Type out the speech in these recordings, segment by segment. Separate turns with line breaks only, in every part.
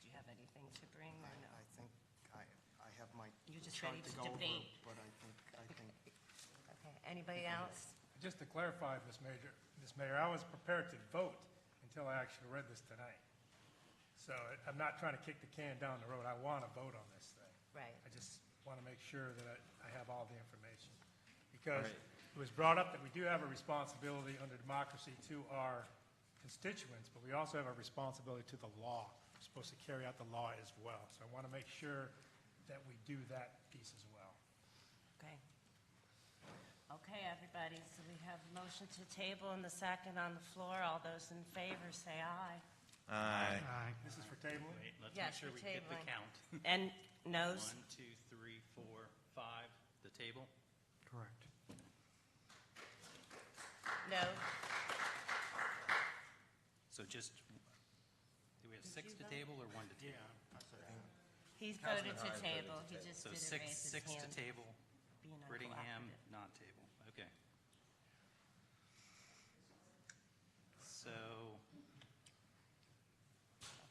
something to bring
I
or no?
I think I, I have my
You're just
chart
ready
to
to
go over,
debate.
but I think, I think,
Okay, anybody else?
Just to clarify, Ms. Major, Ms. Mayor, I was prepared to vote until I actually read this tonight. So I- I'm not trying to kick the can down the road. I want to vote on this thing.
Right.
I just want to make sure that I, I have all the information. Because it was brought up that we do have a responsibility under democracy to our constituents, but we also have a responsibility to the law. We're supposed to carry out the law as well. So I want to make sure that we do that piece as well.
Okay. Okay, everybody, so we have a motion to table and the second on the floor. All those in favor, say aye.
This is for tabling?
Wait, let's make
Yes,
sure
we're
we get the
tabling.
count.
And
One,
noes?
two, three, four, five, the table.
correct.
No.
So just, do we have six
you
to
vote?
table or one to table?
He's voted to table. He just
So
didn't
six,
raise his
six to
hand.
table,
being
Brittingham,
uncooperative.
not table, okay. So,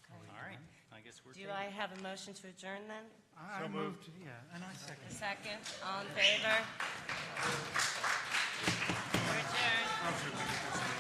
Okay.
all right, I guess we're.
Do
tabled.
I have a motion to adjourn then?
So
I
moved.
moved, yeah, and I second.
A second, all in favor? We're adjourned.